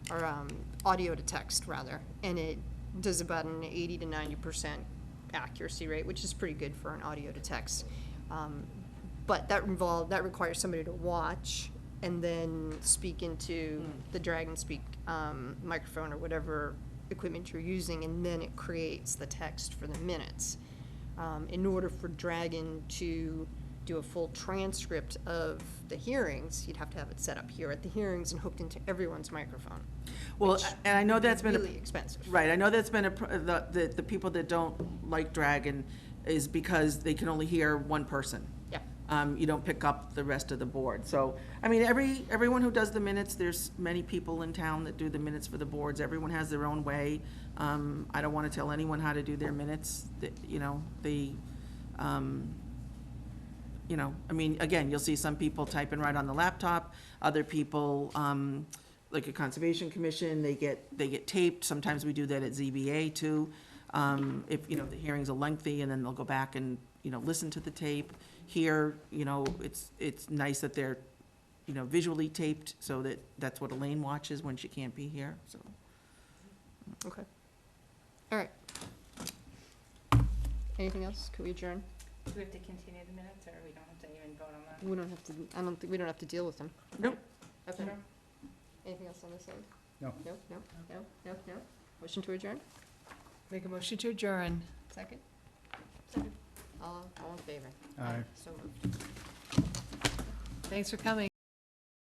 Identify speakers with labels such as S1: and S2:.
S1: or um, audio to text rather, and it does about an 80 to 90 percent accuracy rate, which is pretty good for an audio to text. Um, but that involved that requires somebody to watch and then speak into the Dragon Speak um, microphone or whatever equipment you're using, and then it creates the text for the minutes. Um, in order for Dragon to do a full transcript of the hearings, you'd have to have it set up here at the hearings and hooked into everyone's microphone.
S2: Well,
S1: which
S2: and I know
S1: would be
S2: that's been a-
S1: Really expensive.
S2: Right, I know that's been a, pr- the, the, the people that don't like Dragon is because they can only hear one person.
S1: Yeah.
S2: Um, you don't pick up the rest of the board, so, I mean, every, everyone who does the minutes, there's many people in town that do the minutes for the boards, everyone has their own way. Um, I don't wanna tell anyone how to do their minutes, that, you know, they, um, you know, I mean, again, you'll see some people typing right on the laptop, other people, um, like a conservation commission, they get, they get taped, sometimes we do that at ZBA too. Um, if, you know, the hearings are lengthy, and then they'll go back and, you know, listen to the tape. Here, you know, it's, it's nice that they're, you know, visually taped, so that, that's what Elaine watches when she can't be here, so.
S1: Okay. All right. Anything else? Could we adjourn?
S3: Do we have to continue the minutes, or we don't have to even vote on that?
S1: We don't have to, I don't think, we don't have to deal with them.
S2: Nope.
S1: Okay. Anything else on this end?
S4: No.
S1: No, no, no, no, no. Motion to adjourn?
S5: Make a motion to adjourn.
S1: Second? Second. All, all in favor?
S4: Aye.
S1: So moved.
S5: Thanks for coming.